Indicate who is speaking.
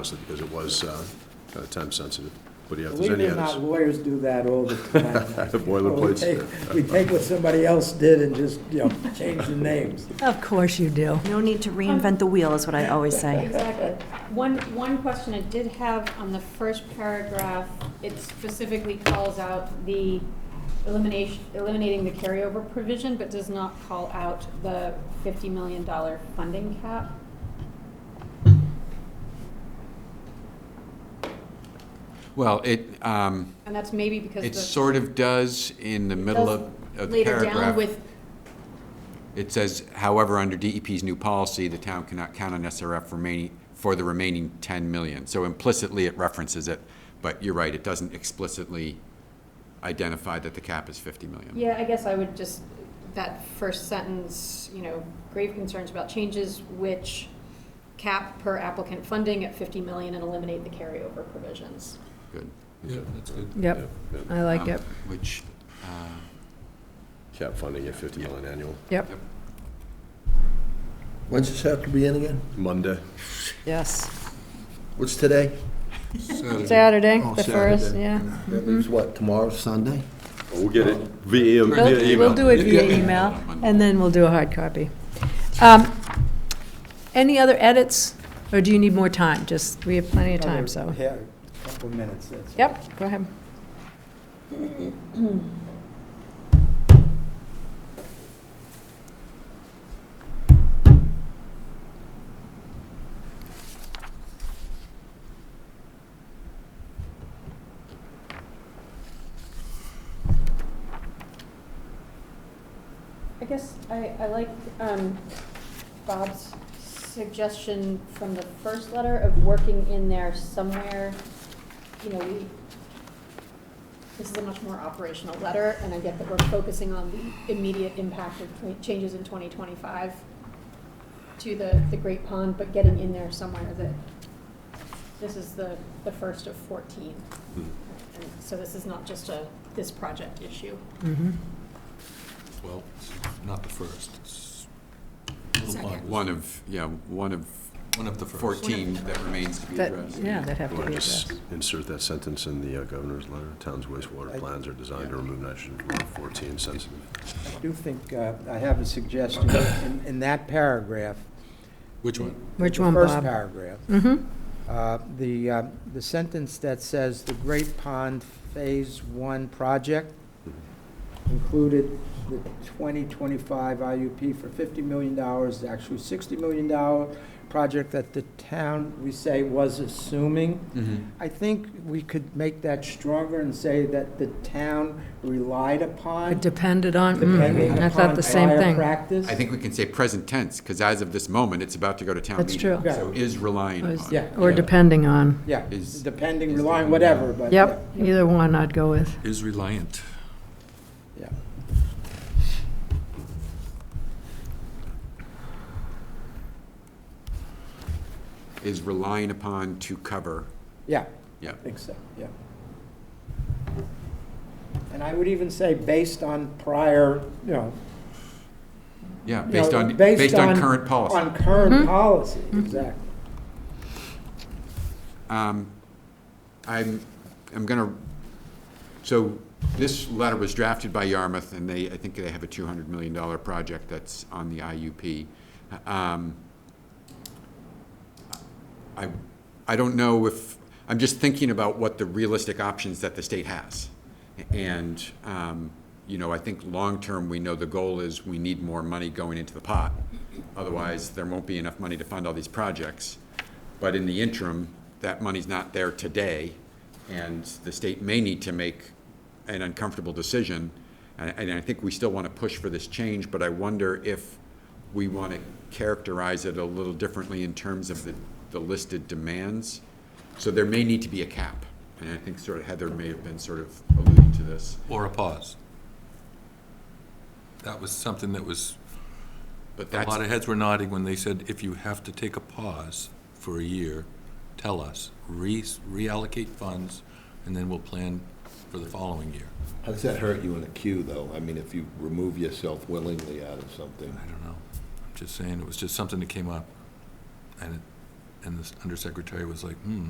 Speaker 1: honestly, because it was uh, uh, time sensitive. But yeah, if there's
Speaker 2: Believe
Speaker 1: any
Speaker 2: it or not,
Speaker 1: others.
Speaker 2: lawyers do that all the time. We
Speaker 1: Boilerplates.
Speaker 2: take- we take what somebody else did and just, you know, change the names.
Speaker 3: Of course you do.
Speaker 4: No need to reinvent the wheel, is what I always say.
Speaker 5: Exactly. One, one question I did have on the first paragraph, it specifically calls out the elimination, eliminating the carryover provision, but does not call out the fifty million dollar funding cap.
Speaker 6: Well, it, um,
Speaker 5: And that's maybe because the.
Speaker 6: it sort of does in the middle of of the
Speaker 5: Later down
Speaker 6: paragraph.
Speaker 5: with,
Speaker 6: It says, however, under DEP's new policy, the town cannot count on SRF remaining, for the remaining 10 million. So implicitly, it references it, but you're right, it doesn't explicitly identify that the cap is 50 million.
Speaker 5: yeah, I guess I would just, that first sentence, you know, grave concerns about changes which cap per applicant funding at fifty million and eliminate the carryover provisions.
Speaker 6: Good.
Speaker 1: Yeah, that's good.
Speaker 3: Yep,
Speaker 2: Uh,
Speaker 3: I like it.
Speaker 6: Um, Which, uh,
Speaker 1: Cap funding at 50 million annual.
Speaker 3: Yep,
Speaker 7: When's this have to be in again?
Speaker 1: Monday.
Speaker 3: yes.
Speaker 7: What's today?
Speaker 3: Saturday,
Speaker 7: Oh,
Speaker 3: the first,
Speaker 7: Saturday.
Speaker 3: yeah.
Speaker 8: Mm-hmm.
Speaker 7: That leaves what, tomorrow, Sunday?
Speaker 1: We'll get it via
Speaker 3: We'll-
Speaker 1: via email.
Speaker 3: We'll do it via email, and then we'll do a hard copy. Um, Any other edits, or do you need more time? Just, we have plenty of time, so.
Speaker 2: Yeah, a couple of minutes, that's.
Speaker 3: Yep, go ahead.
Speaker 5: I guess I, I like um, Bob's suggestion from the first letter of working in there somewhere, you know, we, this is a much more operational letter, and I get that we're focusing on the immediate impact of twen- changes in 2025 to the, the Great Pond, but getting in there somewhere that this is the, the first of 14.
Speaker 1: Mhm.
Speaker 5: And so this is not just a, this project issue.
Speaker 3: Mhm.
Speaker 8: Well, it's not the first, it's
Speaker 5: Second.
Speaker 6: One of, yeah, one of
Speaker 8: one of the first.
Speaker 6: 14 that remains to be
Speaker 3: That,
Speaker 6: addressed.
Speaker 3: yeah, that have
Speaker 1: You
Speaker 3: to
Speaker 1: want
Speaker 3: be
Speaker 1: to just
Speaker 3: addressed.
Speaker 1: insert that sentence in the uh, governor's letter? Town's wastewater plans are designed to remove nitrogen from around 14 sensitive.
Speaker 2: I do think, uh, I have a suggestion in, in that paragraph.
Speaker 8: Which one?
Speaker 3: Which
Speaker 2: the
Speaker 3: one,
Speaker 2: First
Speaker 3: Bob?
Speaker 2: paragraph.
Speaker 3: Mm-hmm,
Speaker 2: Uh, The, uh, the sentence that says the Great Pond Phase One project included the 2025 IUP for $50 million, actually $60 million project that the town, we say, was assuming.
Speaker 6: Mm-hmm.
Speaker 2: I think we could make that stronger and say that the town relied upon,
Speaker 3: it depended on,
Speaker 2: depending
Speaker 3: mm, I thought
Speaker 2: upon
Speaker 3: the same
Speaker 2: prior
Speaker 3: thing.
Speaker 2: practice.
Speaker 6: I think we can say present tense, because as of this moment, it's about to go to town
Speaker 3: That's
Speaker 6: meeting.
Speaker 3: true.
Speaker 2: Yeah.
Speaker 6: So is relying
Speaker 3: Or is-
Speaker 6: on.
Speaker 2: Yeah.
Speaker 3: Or depending on.
Speaker 2: Yeah,
Speaker 6: is-
Speaker 2: depending,
Speaker 6: is
Speaker 2: relying,
Speaker 6: the-
Speaker 2: whatever, but.
Speaker 3: Yep, either one I'd go with.
Speaker 8: Is reliant.
Speaker 2: Yeah.
Speaker 6: Is relying upon to cover,
Speaker 2: Yeah.
Speaker 6: yeah.
Speaker 2: think so, yeah. And I would even say based on prior, you know.
Speaker 6: Yeah,
Speaker 2: you
Speaker 6: based
Speaker 2: know,
Speaker 6: on, based on current
Speaker 2: On
Speaker 6: policy.
Speaker 2: current policy, exactly.
Speaker 6: Um, I'm, I'm going to, so this letter was drafted by Yarmouth, and they, I think they have a $200 million project that's on the IUP. Um, I, I don't know if, I'm just thinking about what the realistic options that the state has. And, um, you know, I think long-term, we know the goal is we need more money going into the pot. Otherwise, there won't be enough money to fund all these projects. But in the interim, that money's not there today, and the state may need to make an uncomfortable decision. And, and I think we still want to push for this change, but I wonder if we want to characterize it a little differently in terms of the, the listed demands. So there may need to be a cap, and I think sort of Heather may have been sort of alluding to this.
Speaker 8: Or a pause. That was something that was,
Speaker 6: But
Speaker 8: a
Speaker 6: that's,
Speaker 8: lot of heads were nodding when they said, if you have to take a pause for a year, tell us, re- reallocate funds, and then we'll plan for the following year.
Speaker 7: How does that hurt you in a queue, though? I mean, if you remove yourself willingly out of something.
Speaker 8: I don't know. I'm just saying, it was just something that came up, and it And the undersecretary was like, hmm,